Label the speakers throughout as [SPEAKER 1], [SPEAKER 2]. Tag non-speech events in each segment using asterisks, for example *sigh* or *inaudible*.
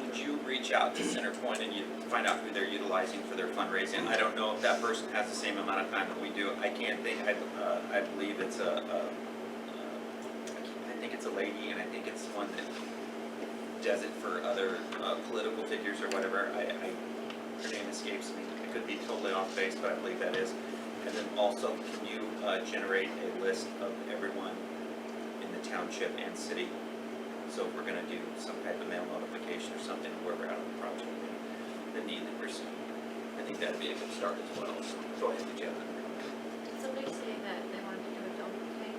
[SPEAKER 1] could you reach out to Centerpoint and you find out who they're utilizing for their fundraising? I don't know if that person has the same amount of time that we do. I can't think, I, uh, I believe it's a, uh, I think it's a lady and I think it's one that does it for other, uh, political figures or whatever. I, I, her name escapes me. I could be totally off base, but I believe that is. And then also, can you, uh, generate a list of everyone in the township and city so if we're gonna do some type of mail notification or something where we're out of the project, and the need that we're seeing, I think that'd be a good start as well. So I think you have
[SPEAKER 2] Did somebody say that they wanted to do a dump day?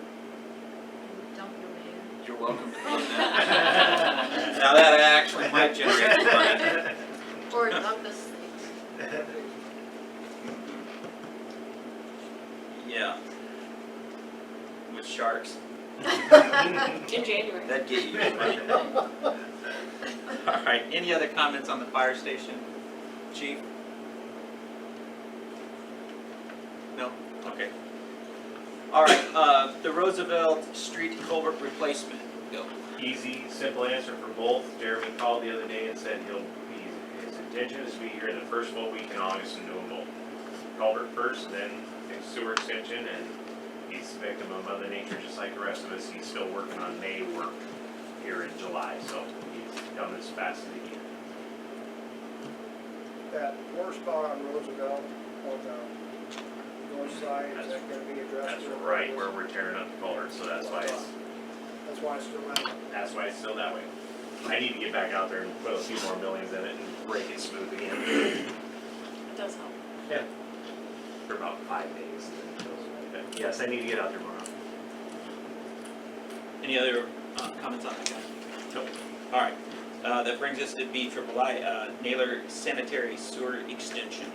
[SPEAKER 2] And Dump your mayor?
[SPEAKER 3] You're welcome to
[SPEAKER 1] that. *laughs* Now that actually might *laughs* generate some money.
[SPEAKER 2] *laughs* Or dump the snakes?
[SPEAKER 1] Yeah. With sharks,
[SPEAKER 4] In January.
[SPEAKER 1] that'd get you. All right, any other comments on the fire station, chief? No, okay. All right, uh, the Roosevelt Street culvert replacement, go.
[SPEAKER 5] *laughs* Easy, simple answer for both. Jeremy called the other day and said he'll, he- his intention is to be here the first full week in August and do them both. Culvert first, then the sewer extension, and he's a victim of mother nature, just like the rest of us. He's still working on May work here in July, so he's done as fast as he can.
[SPEAKER 6] That poor spot on Roosevelt on the north side, is that gonna be addressed?
[SPEAKER 5] That's right where we're tearing up the culvert, so that's why it's,
[SPEAKER 6] That's why it's still out.
[SPEAKER 5] that's why it's still that way. I need to get back out there and put a few more millions in it and break it smooth again.
[SPEAKER 4] It does help.
[SPEAKER 5] for about five days. and then it goes away. But Yes, I need to get out there tomorrow.
[SPEAKER 1] Any other uh, comments on that, guy?
[SPEAKER 5] Nope.
[SPEAKER 1] All right, Uh, that brings us to B triple I, uh, Naylor Sanitary Sewer Extension.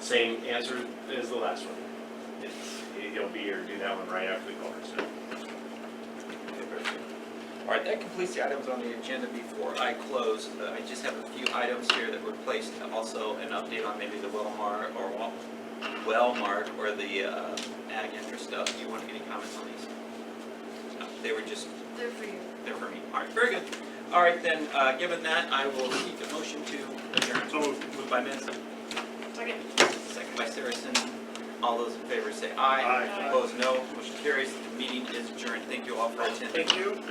[SPEAKER 5] Same answer as the last one. It's, he'll be here, do that one right after the culvert, so.
[SPEAKER 1] All right, that completes the items on the agenda before I close. Uh, I just have a few items here that were placed, also an update on maybe the Wellmark or Wel- Wellmark or the uh, ag interest stuff. Do you want any comments on these? No, They were just
[SPEAKER 2] They're for you.
[SPEAKER 1] there for me. All right, very good. All right, then, uh, given that, I will seek a motion to adjourn. So moved. Moved by Mensa,
[SPEAKER 4] Second.
[SPEAKER 1] second by Saracen. All those in favor say aye.
[SPEAKER 4] Aye.
[SPEAKER 1] Opposed, no. Motion carries. The meeting is adjourned. Thank you all for attending.
[SPEAKER 3] Thank you.